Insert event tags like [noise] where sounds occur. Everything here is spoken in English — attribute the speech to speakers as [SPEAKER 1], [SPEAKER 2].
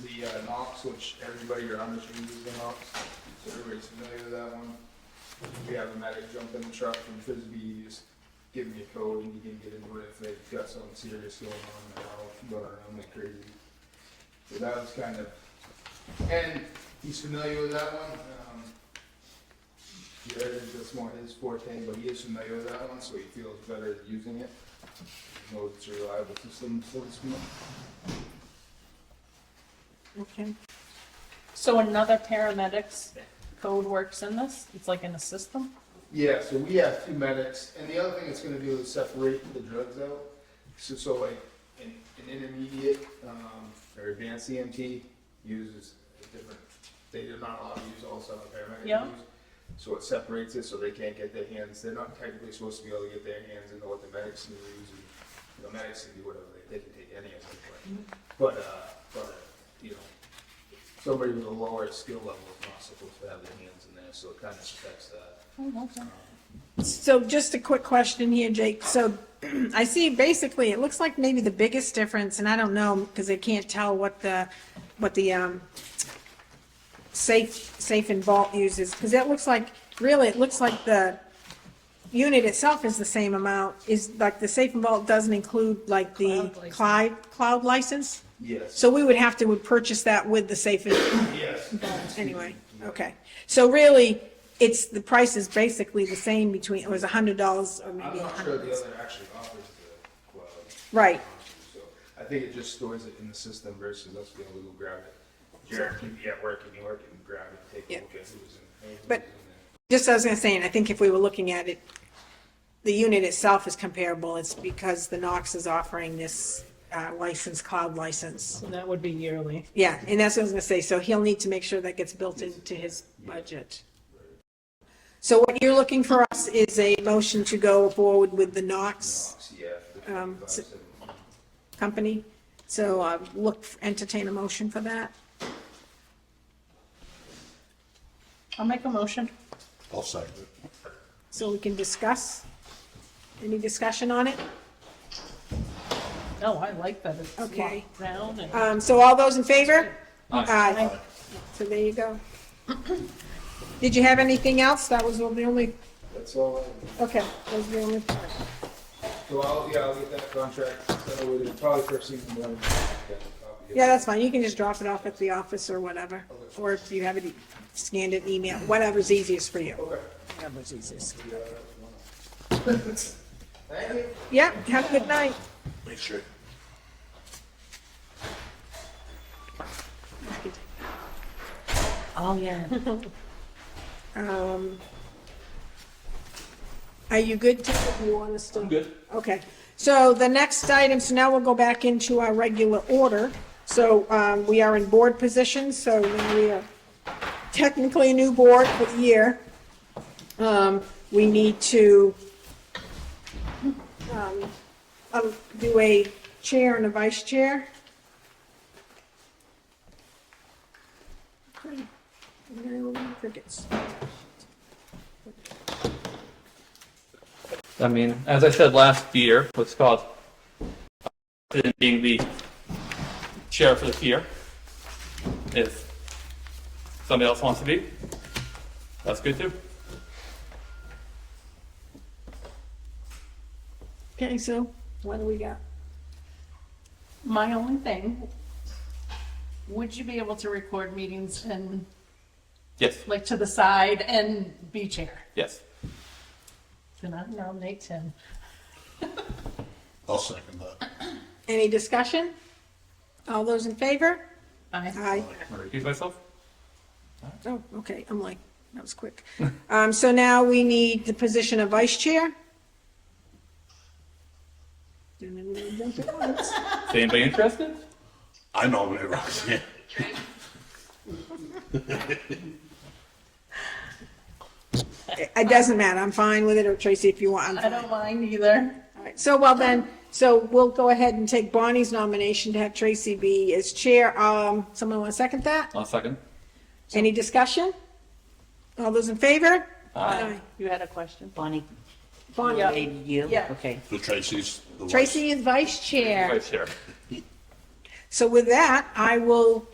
[SPEAKER 1] the uh, NOx, which everybody around us uses the NOx, so everybody's familiar with that one. We have a medic jump in the truck from Frisbee, just give me a code and you can get into it if they've got something serious going on, and I'll run around like crazy. So that was kind of, and he's familiar with that one, um, Jared, that's more his forte, but he is familiar with that one, so he feels better using it. Knows it's a reliable system, so to speak.
[SPEAKER 2] Okay. So another paramedics code works in this? It's like in a system?
[SPEAKER 1] Yeah, so we have two medics, and the other thing it's gonna do is separate the drugs out. So, so like, an, an intermediate, um, or advanced EMT uses a different, they are not allowed to use all stuff a paramedic
[SPEAKER 2] Yeah.
[SPEAKER 1] uses. So it separates it, so they can't get their hands, they're not technically supposed to be able to get their hands into what the medics can use, and, you know, medics can do whatever, they, they can take any of it, but, but, uh, but, uh, you know, somebody with a lower skill level is not supposed to have their hands in there, so it kinda protects that.
[SPEAKER 2] Oh, okay.
[SPEAKER 3] So just a quick question here, Jake. So [clears throat] I see basically, it looks like maybe the biggest difference, and I don't know, because I can't tell what the, what the, um, safe, safe and vault uses, because that looks like, really, it looks like the unit itself is the same amount, is like the safe and vault doesn't include like the
[SPEAKER 2] Cloud license.
[SPEAKER 3] cloud, cloud license?
[SPEAKER 1] Yes.
[SPEAKER 3] So we would have to, would purchase that with the safe and,
[SPEAKER 1] Yes.
[SPEAKER 3] Anyway, okay. So really, it's, the price is basically the same between, it was a hundred dollars or
[SPEAKER 1] I'm
[SPEAKER 3] maybe a
[SPEAKER 1] not sure
[SPEAKER 3] hundred.
[SPEAKER 1] the other actually offers the cloud.
[SPEAKER 3] Right.
[SPEAKER 1] So I think it just stores it in the system versus us being able to go grab it. Jared can be at work in New York and grab it, take
[SPEAKER 3] Yeah.
[SPEAKER 1] a look at who was in. who was
[SPEAKER 3] But-
[SPEAKER 1] in there.
[SPEAKER 3] Just as I was saying, I think if we were looking at it, the unit itself is comparable. It's because the Knox is offering this uh, license, cloud license.
[SPEAKER 2] So that would be yearly.
[SPEAKER 3] Yeah, and that's what I was gonna say. So he'll need to make sure that gets built into his budget. So what you're looking for us is a motion to go forward with the Knox
[SPEAKER 1] Knox, yeah. the
[SPEAKER 3] Um,
[SPEAKER 1] 25,
[SPEAKER 3] so-
[SPEAKER 1] 17.
[SPEAKER 3] company. So uh, look, entertain a motion for that.
[SPEAKER 2] I'll make a motion.
[SPEAKER 4] I'll second it.
[SPEAKER 3] So we can discuss? Any discussion on it?
[SPEAKER 2] No, I like that. It's
[SPEAKER 3] Okay.
[SPEAKER 2] locked down and
[SPEAKER 3] Um, so all those in favor? Aye. So there you go. [clears throat] Did you have anything else? That was the only,
[SPEAKER 1] That's all. I-
[SPEAKER 3] okay, that was the only part.
[SPEAKER 1] So I'll, yeah, I'll get that contract. sent over to- Probably first thing in the morning. I'll get a copy of it.
[SPEAKER 3] Yeah, that's fine. You can just drop it off at the office or whatever. Or if you have it scanned and email, whatever's easiest for you.
[SPEAKER 1] Okay.
[SPEAKER 3] Whatever's easiest.
[SPEAKER 1] Yeah, that's one. Thank you.
[SPEAKER 3] Yep, have a good night.
[SPEAKER 4] Make sure.
[SPEAKER 2] Oh, yeah.
[SPEAKER 3] Um, Are you good, Tim? Do you want us to?
[SPEAKER 5] Good.
[SPEAKER 3] Okay, so the next item, so now we'll go back into our regular order. So um, we are in board positions, so now we are technically a new board for the year. Um, We need to um, um, do a chair and a vice chair. Okay, no crickets.
[SPEAKER 5] I mean, as I said last year, what's called uh, in being the chair for this year. If somebody else wants to be, that's good too.
[SPEAKER 3] Okay, so what do we got?
[SPEAKER 2] My only thing, would you be able to record meetings and
[SPEAKER 5] Yes,
[SPEAKER 2] like to the side and be chair?
[SPEAKER 5] yes.
[SPEAKER 2] Then I nominate Tim.
[SPEAKER 4] I'll second that.
[SPEAKER 3] Any discussion? All those in favor?
[SPEAKER 2] Aye.
[SPEAKER 3] Aye.
[SPEAKER 5] Excuse myself.
[SPEAKER 3] Oh, okay, I'm like, that was quick. Um, so now we need the position of vice chair. All
[SPEAKER 5] Is anybody interested?
[SPEAKER 4] I nominate Roxanne.
[SPEAKER 3] It doesn't matter, I'm fine with it, or Tracy, if you want, I'm
[SPEAKER 2] I
[SPEAKER 3] fine.
[SPEAKER 2] don't mind either.
[SPEAKER 3] All right, So, well then, so we'll go ahead and take Bonnie's nomination to have Tracy be as chair. Um, someone want to second that?
[SPEAKER 5] I'll second.
[SPEAKER 3] Any discussion? All those in favor?
[SPEAKER 5] Aye.
[SPEAKER 2] You had a question?
[SPEAKER 6] Bonnie,
[SPEAKER 2] Yeah.
[SPEAKER 3] Bonnie,
[SPEAKER 6] did you?
[SPEAKER 2] Yeah.
[SPEAKER 6] Okay.
[SPEAKER 4] So Tracy's the vice.
[SPEAKER 3] Tracy is vice chair.
[SPEAKER 5] Vice chair.
[SPEAKER 3] So with that, I will